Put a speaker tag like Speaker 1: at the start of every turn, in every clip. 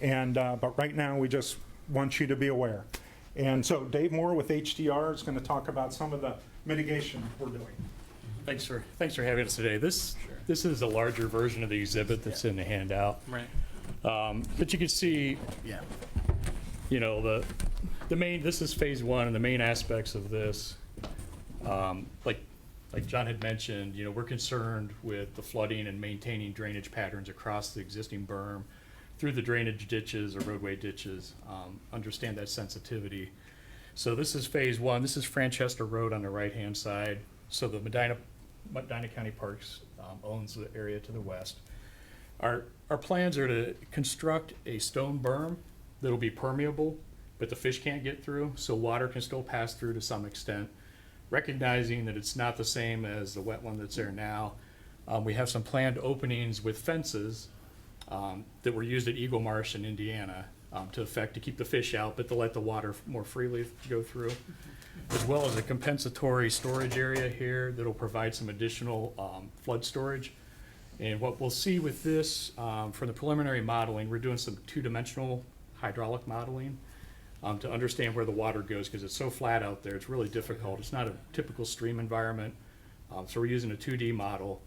Speaker 1: And, uh, but right now, we just want you to be aware. And so Dave Moore with HDR is going to talk about some of the mitigation we're doing.
Speaker 2: Thanks for, thanks for having us today. This, this is a larger version of the exhibit that's in the handout.
Speaker 3: Right.
Speaker 2: Um, But you can see,
Speaker 3: Yeah.
Speaker 2: you know, the, the main, this is phase one, and the main aspects of this, um, like, like John had mentioned, you know, we're concerned with the flooding and maintaining drainage patterns across the existing berm through the drainage ditches or roadway ditches, um, understand that sensitivity. So this is phase one. This is Franchester Road on the right-hand side. So the Medina, Medina County Parks um, owns the area to the west. Our, our plans are to construct a stone berm that'll be permeable, but the fish can't get through, so water can still pass through to some extent. Recognizing that it's not the same as the wet one that's there now, um, we have some planned openings with fences um, that were used at Eagle Marsh in Indiana um, to affect, to keep the fish out, but to let the water more freely go through, as well as a compensatory storage area here that'll provide some additional um, flood storage. And what we'll see with this, um, from the preliminary modeling, we're doing some two-dimensional hydraulic modeling um, to understand where the water goes, because it's so flat out there, it's really difficult. It's not a typical stream environment. Um, So we're using a 2D model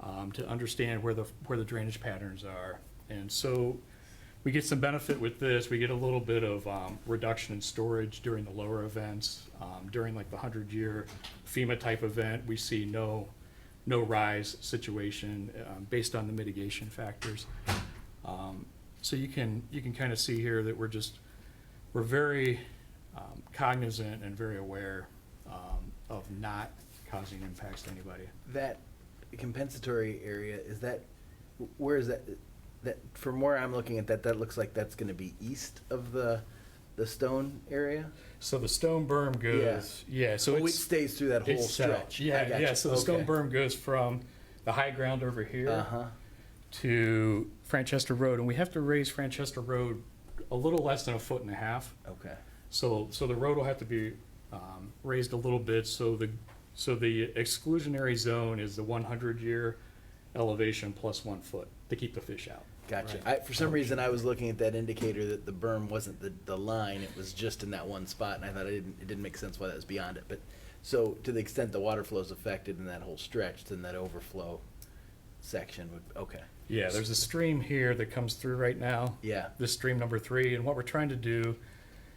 Speaker 2: um, to understand where the, where the drainage patterns are. And so we get some benefit with this. We get a little bit of um, reduction in storage during the lower events. Um, During like the 100-year FEMA-type event, we see no, no rise situation um, based on the mitigation factors. Um, So you can, you can kind of see here that we're just, we're very um, cognizant and very aware um, of not causing impacts to anybody.
Speaker 3: That compensatory area, is that, where is that, that, from where I'm looking at that, that looks like that's gonna be east of the, the stone area?
Speaker 2: So the stone berm goes, yeah, so
Speaker 3: Oh, it
Speaker 2: it's.
Speaker 3: stays through that whole
Speaker 2: it's south.
Speaker 3: stretch? I
Speaker 2: Yeah,
Speaker 3: gotcha.
Speaker 2: yeah, so the stone
Speaker 3: Okay.
Speaker 2: berm goes from the high ground over here
Speaker 3: Uh-huh,
Speaker 2: to Franchester Road, and we have to raise Franchester Road a little less than a foot and a half.
Speaker 3: okay.
Speaker 2: So, so the road will have to be um, raised a little bit, so the, so the exclusionary zone is the 100-year elevation plus one foot to keep the fish out.
Speaker 3: Gotcha. I, for some reason, I was looking at that indicator that the berm wasn't the, the line, it was just in that one spot, and I thought it didn't, it didn't make sense why that was beyond it, but, so, to the extent the water flow's affected in that whole stretch, then that overflow section would, okay,
Speaker 2: Yeah, there's a stream here that comes through right now.
Speaker 3: yeah,
Speaker 2: This stream number three, and what we're trying to do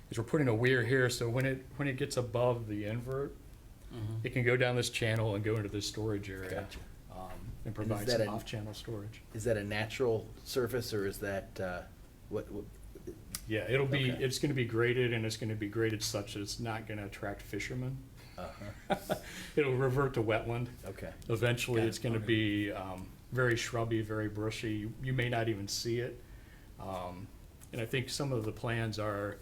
Speaker 2: is we're putting a weir here, so when it, when it gets above the invert, it can go down this channel and go into this storage area.
Speaker 3: Gotcha.
Speaker 2: um, And provide
Speaker 3: that
Speaker 2: some
Speaker 3: an-
Speaker 2: off-channel storage.
Speaker 3: Is that a natural surface or is that, uh, what, what,
Speaker 2: Yeah, it'll be,
Speaker 3: Okay.
Speaker 2: it's gonna be graded, and it's gonna be graded such that it's not gonna attract fishermen. Uh-huh. It'll revert to wetland.
Speaker 3: okay,
Speaker 2: Eventually, it's gonna be um, very shrubby, very brushy. You- You may not even see it. Um, And I think some of the plans are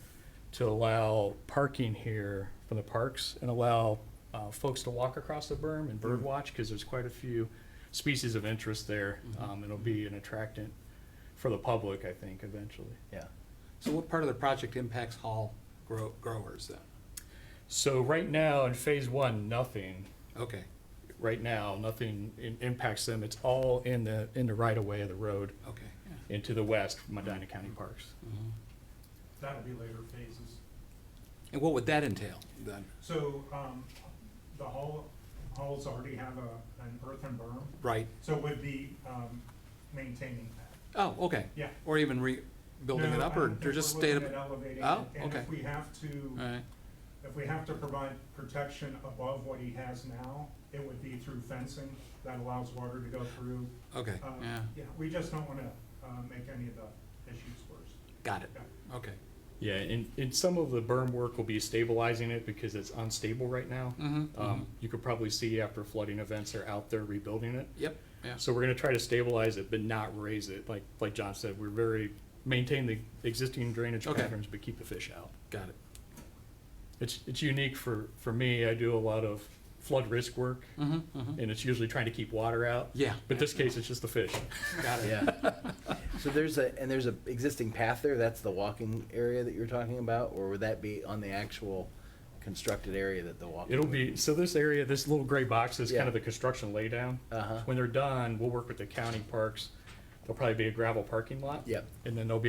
Speaker 2: to allow parking here for the parks and allow uh, folks to walk across the berm and bird watch, because there's quite a few species of interest there. Um, It'll be an attractant for the public, I think, eventually.
Speaker 3: yeah.
Speaker 4: So what part of the project impacts Hall grow- growers then?
Speaker 2: So right now, in phase one, nothing.
Speaker 4: Okay,
Speaker 2: Right now, nothing in- impacts them. It's all in the, in the right-of-way of the road.
Speaker 4: okay, yeah.
Speaker 2: and to the west, Medina County Parks.
Speaker 1: That'll be later phases.
Speaker 4: And what would that entail then?
Speaker 1: So um, the hall, halls already have a, an earthen berm,
Speaker 4: Right,
Speaker 1: so we'd be um, maintaining that.
Speaker 4: oh, okay.
Speaker 1: Yeah.
Speaker 4: Or even rebuilding it
Speaker 1: No,
Speaker 4: up
Speaker 1: I
Speaker 4: or
Speaker 1: don't
Speaker 4: they're
Speaker 1: think
Speaker 4: just
Speaker 1: we're
Speaker 4: staying?
Speaker 1: looking at elevating it.
Speaker 4: Oh,
Speaker 1: And
Speaker 4: okay.
Speaker 1: if we have to,
Speaker 4: Alright,
Speaker 1: if we have to provide protection above what he has now, it would be through fencing that allows water to go through.
Speaker 4: okay,
Speaker 1: Uh,
Speaker 4: yeah,
Speaker 1: Yeah, we just don't want to make any of the issues worse.
Speaker 4: got it,
Speaker 1: Yeah.
Speaker 4: okay.
Speaker 2: Yeah, and, and some of the berm work will be stabilizing it because it's unstable right now.
Speaker 4: Mm-hmm,
Speaker 2: Um, you could probably see after flooding events, they're out there rebuilding it.
Speaker 4: yep, yeah,
Speaker 2: So we're gonna try to stabilize it, but not raise it. Like, like John said, we're very, maintain the existing drainage
Speaker 4: Okay.
Speaker 2: patterns, but keep the fish out.
Speaker 4: got it.
Speaker 2: It's, it's unique for, for me. I do a lot of flood risk work
Speaker 4: Mm-hmm, mm-hmm,
Speaker 2: and it's usually trying to keep water out.
Speaker 4: yeah.
Speaker 2: But this case, it's just the fish.
Speaker 4: Got it,
Speaker 3: Yeah. So there's a, and there's a existing path there, that's the walking area that you're talking about, or would that be on the actual constructed area that the walking?
Speaker 2: It'll be, so this area, this little gray box is kind
Speaker 3: Yeah.
Speaker 2: of the construction laydown.
Speaker 3: Uh-huh.
Speaker 2: When they're done, we'll work with the county parks. There'll probably be a gravel parking lot.
Speaker 3: Yep.
Speaker 2: And then there'll be